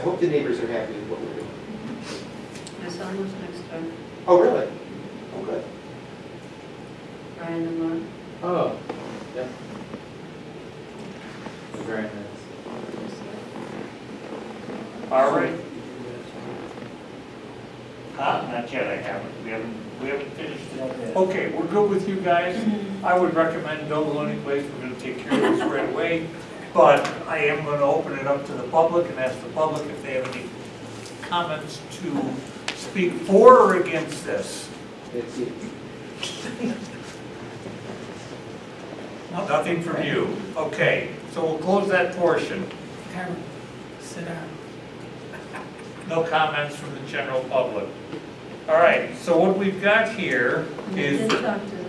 I hope the neighbors are happy with what we're doing. My son lives next door, Oh, really? Oh, good. Brian and Laura. Oh, yep. Very nice. All right. Huh? Not yet, I haven't, we haven't, we haven't finished it. Okay, we're good with you guys. I would recommend no loading place, we're gonna take care of this right away. But I am gonna open it up to the public and ask the public if they have any comments to speak for or against this. That's it. Nothing from you. Okay, so we'll close that portion. Carmen, sit down. No comments from the general public. All right, so what we've got here And They is did talk to the,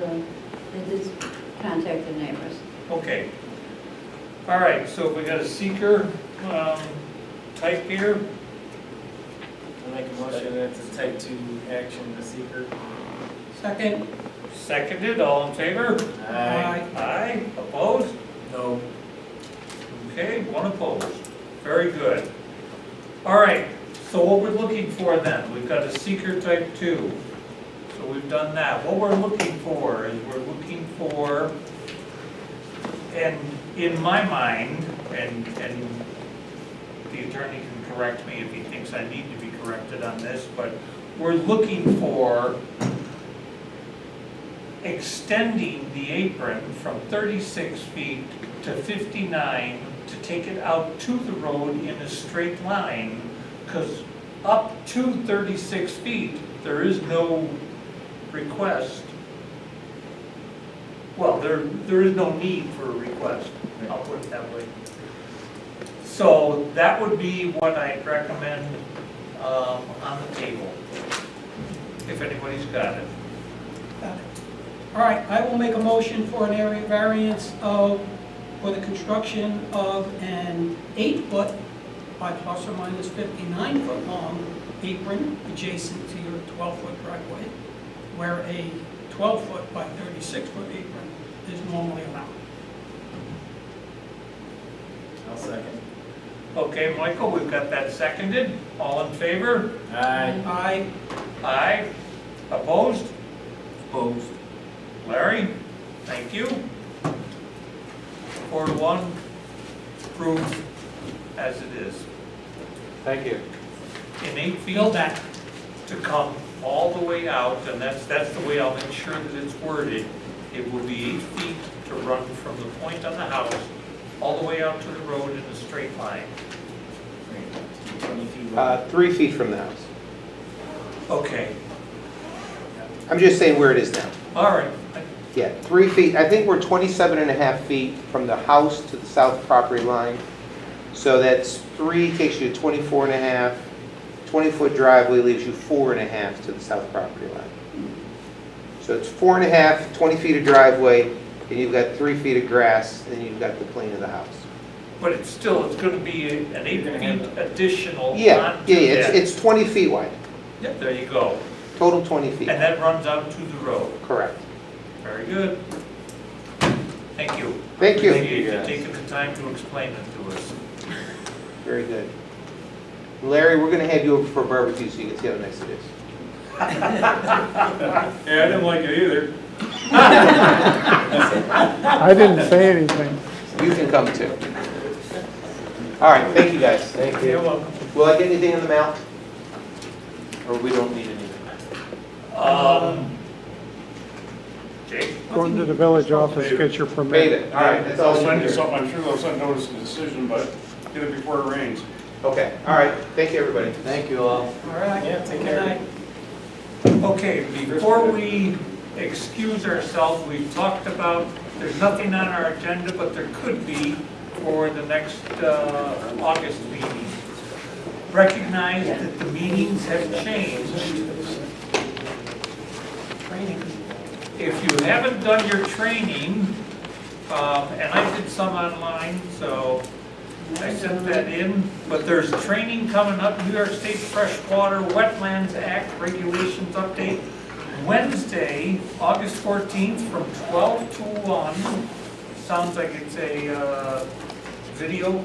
they did contact the neighbors. Okay. All right, so we got a seeker um, type here. I make a motion that it's a type two action, the seeker. Second? Seconded, all in favor? Aye. Opposed? No. Okay, one opposed. Very good. All right, so what we're looking for then, we've got a seeker type two. So we've done that. What we're looking for is we're looking for, and in my mind, and, and the attorney can correct me if he thinks I need to be corrected on this, but we're looking for extending the apron from 36 feet to 59 to take it out to the road in a straight line, because up to 36 feet, there is no request. Well, there, there is no need for a request, I'll put it that way. So that would be what I'd recommend um, on the table, if anybody's got it. All right, I will make a motion for an area variance of, for the construction of an eight-foot by plus or minus fifty-nine-foot long apron adjacent to your twelve-foot driveway, where a twelve-foot by thirty-six-foot apron is normally allowed. I'll second. Okay, Michael, we've got that seconded. All in favor? Aye. I, Aye. Opposed? Opposed. Larry? Thank you. Four to one, It's approved as it is. Thank you. In eight feet feel that. to come all the way out, and that's, that's the way I'll make sure that it's worded. It will be eight feet to run from the point on the house all the way out to the road in a straight line. Twenty feet. Uh, Three feet from the house. Okay, I'm just saying where it is now. all right. Yeah, three feet, I think we're 27 and a half feet from the house to the south property line. So that's three, takes you to 24 and a half. 20-foot driveway leaves you four and a half to the south property line. So it's four and a half, 20 feet of driveway, and you've got three feet of grass, and you've got the plane of the house. But it's still, it's gonna be an eight You're gonna have- feet additional Yeah, yeah, onto yeah, it's, that. it's 20 feet wide, Yep, there you go. total 20 feet, And that runs out to the road. correct. Very good. Thank you. Thank you. Appreciate you taking the time to explain it to us. Very good. Larry, we're gonna have you over for a barbecue so you can see how nice it is. Yeah, I didn't like it either. I didn't say anything. You can come too. All right, thank you guys. Thank You're welcome. Will I get anything in the mail? Or we don't need anything? Um, Jake? Go into the village office, get your permit. Made it, all right, that's all I'll you send can you do. something, I'm sure they'll send notice of decision, but get it before it rains. Okay, all right, thank you, everybody. Thank you all. All right. Yeah, take Good care. night. Okay, before we excuse ourselves, we've talked about, there's nothing on our agenda, but there could be for the next uh, August meeting. Recognize that the meetings have changed. Training. If you haven't done your training, um, and I did some online, so I sent that in, but there's training coming up, New York State Freshwater Wetlands Act Regulations Update, Wednesday, August 14th, from 12 to 1. Sounds like it's a uh, video